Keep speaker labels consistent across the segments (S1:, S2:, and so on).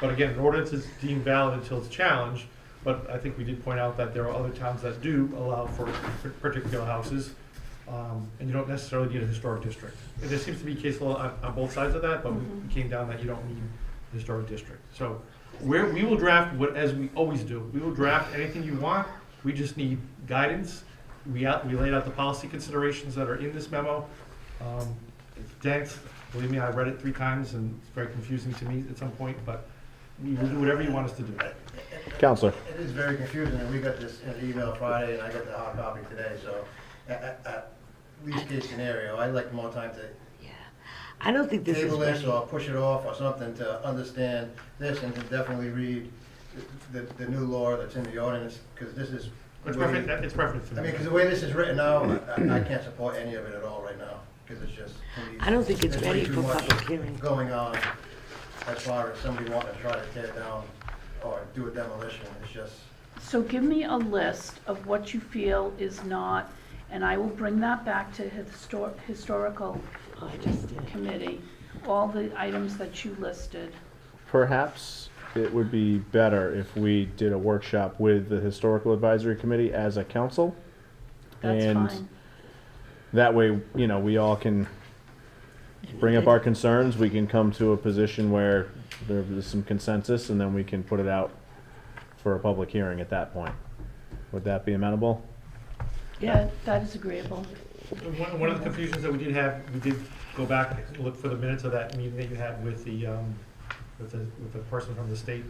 S1: But again, an ordinance is deemed valid until it's challenged, but I think we did point out that there are other towns that do allow for particular houses, um, and you don't necessarily need a historic district. And There seems to be case law on, on both sides of that, but we came down that you don't need a historic district. So, we're, we will draft what, as we always do, we will draft anything you want, we just need guidance. We out, we laid out the policy considerations that are in this memo. Um, It's dense, believe me, I read it three times and it's very confusing to me at some point, but we will do whatever you want us to do.
S2: Counselor.
S3: It is very confusing, and we got this in an email Friday, and I got the hard copy today, so, at, at least case scenario, I'd like more time to
S4: Yeah, I don't think this is
S3: table this,
S4: ready.
S3: or push it off, or something, to understand this, and to definitely read the, the new law that's in the ordinance, because this is.
S1: It's
S3: way-
S1: perfect, it's perfect to
S3: I mean, because
S1: me.
S3: the way this is written now, I, I can't support any of it at all right now, because it's just. to me,
S4: I don't think it's
S3: there's way
S4: ready
S3: too
S4: for
S3: much
S4: public hearing.
S3: Going on, as far as somebody wanting to try to tear it down, or do a demolition, it's just.
S5: So give me a list of what you feel is not, and I will bring that back to histor- historical
S4: Oh, I just did.
S5: committee, all the items that you listed.
S2: Perhaps it would be better if we did a workshop with the Historical Advisory Committee as a council.
S5: That's
S2: And
S5: fine.
S2: That way, you know, we all can bring up our concerns, we can come to a position where there is some consensus, and then we can put it out for a public hearing at that point. Would that be amenable?
S4: Yeah.
S5: That- That is agreeable.
S1: One, one of the confusions that we did have, we did go back and look for the minutes of that meeting that you had with the, um, with the, with the person from the state.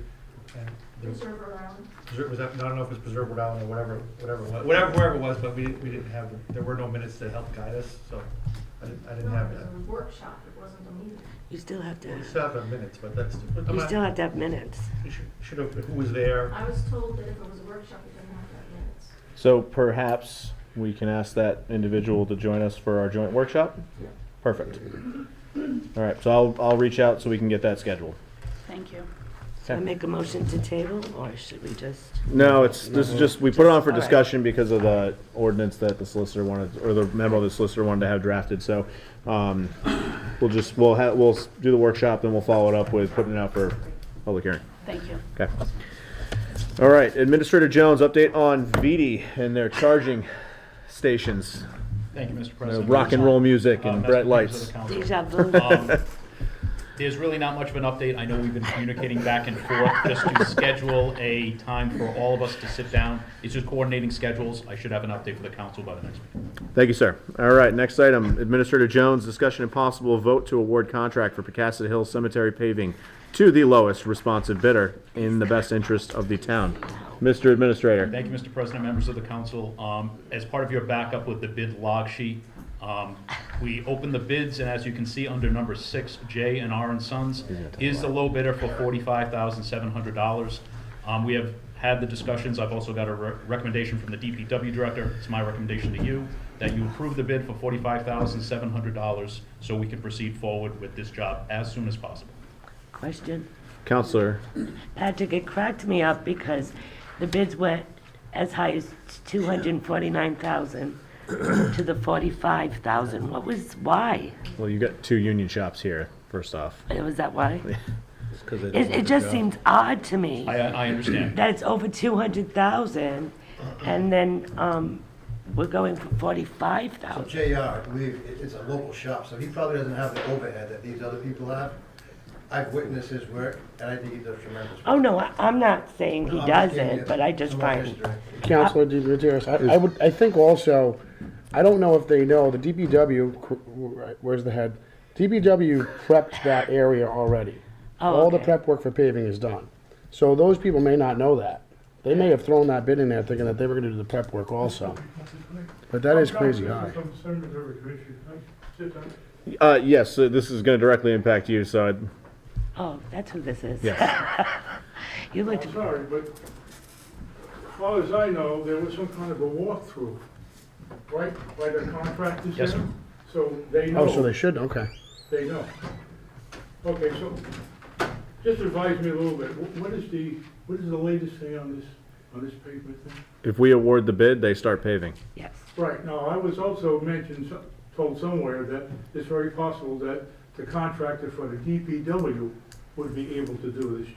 S1: and there was-
S6: Reserve around.
S1: Preser- was that, I don't know if it was Preserve Rhode Island or whatever, whatever, it was- whatever, wherever it was, but we, didn't- we didn't have, there were no minutes to help guide us, so I didn't, I didn't
S6: No,
S1: have
S6: it was
S1: that.
S6: a workshop, it wasn't a meeting.
S4: You still have to,
S1: Well, We still have the minutes, but that's, but I'm
S4: you
S1: not-
S4: still have to have minutes.
S1: we should, should have, who was there?
S6: I was told that if it was a workshop, it didn't have to have minutes.
S2: So perhaps we can ask that individual to join us for our joint workshop? Perfect. All right, so I'll, I'll reach out so we can get that scheduled.
S5: Thank you.
S4: So I make a motion to table, or should we just?
S2: No, it's, this is just, we put it on for
S4: All right.
S2: discussion because of the ordinance that the solicitor wanted, or the memo the solicitor wanted to have drafted, so, um, we'll just, we'll have, we'll s- do the workshop, then we'll follow it up with putting it out for public hearing.
S5: Thank you.
S2: Okay. All right, Administrator Jones, update on VD and their charging stations,
S7: Thank you, Mr.
S2: Uh,
S7: President.
S2: rock and roll music
S7: Uh,
S2: and
S7: Mr.
S2: bright
S7: members of
S2: lights.
S7: the council.
S4: Deja vu.
S3: Uh,
S7: Um, There's really not much of an update. I know we've been communicating back and forth just to schedule a time for all of us to sit down. It's just coordinating schedules. I should have an update for the council by the next meeting.
S2: Thank you, sir. All right, next item, Administrator Jones, discussion and possible vote to award contract for Pecassid Hill Cemetery paving to the lowest responsive bidder in the best interest of the town. Mr. Administrator.
S7: Thank you, Mr. President, members of the council. Um, As part of your backup with the bid log sheet, um, we opened the bids, and as you can see, under number six, J and R and Sons is the low bidder for forty-five thousand seven hundred dollars. Um, We have had the discussions, I've also got a re- recommendation from the DPW director, it's my recommendation to you, that you approve the bid for forty-five thousand seven hundred dollars so we can proceed forward with this job as soon as possible.
S4: Question.
S2: Counselor,
S4: Patrick, it cracked me up because the bids went as high as two hundred and forty-nine thousand to the forty-five thousand. What was, why?
S2: well, you got two union shops here, first off.
S4: Was that why? It, it just seems odd to me.
S7: I, I understand.
S4: that it's over two hundred thousand, and then, um, we're going for forty-five
S3: So
S4: thousand.
S3: JR, I believe, it- it's a local shop, so he probably doesn't have the overhead that these other people have. I've witnessed his work, and I think he does tremendous. work.
S4: Oh, no, I, I'm not saying he
S3: I'm just giving you
S4: doesn't, but I just
S3: some of the
S4: find,
S3: history.
S8: Counselor DeGutierrez, I, I would, I think also, I don't know if they know, the DPW, c- right, where's the head? DPW prepped that area already.
S4: Oh,
S8: All the
S4: okay.
S8: prep work for paving is done. So those people may not know that. They may have thrown that bid in there thinking that they were gonna do the prep work also. But that is crazy high.
S2: Uh, yes, so this is gonna directly impact you, so I'd,
S4: oh, that's who this is.
S2: yes.
S4: You looked,
S9: I'm sorry, but as far as I know, there was some kind of a walkthrough, right, by the contractors?
S7: Yes,
S9: there?
S7: sir.
S9: So they know.
S8: Oh, so they should, okay.
S9: They know. Okay, so just advise me a little bit, Wh- what is the, what is the latest thing on this, on this pavement thing?
S2: If we award the bid, they start paving.
S4: yes,
S9: Right, now, I was also mentioned, so- told somewhere that it's very possible that the contractor for the DPW would be able to do this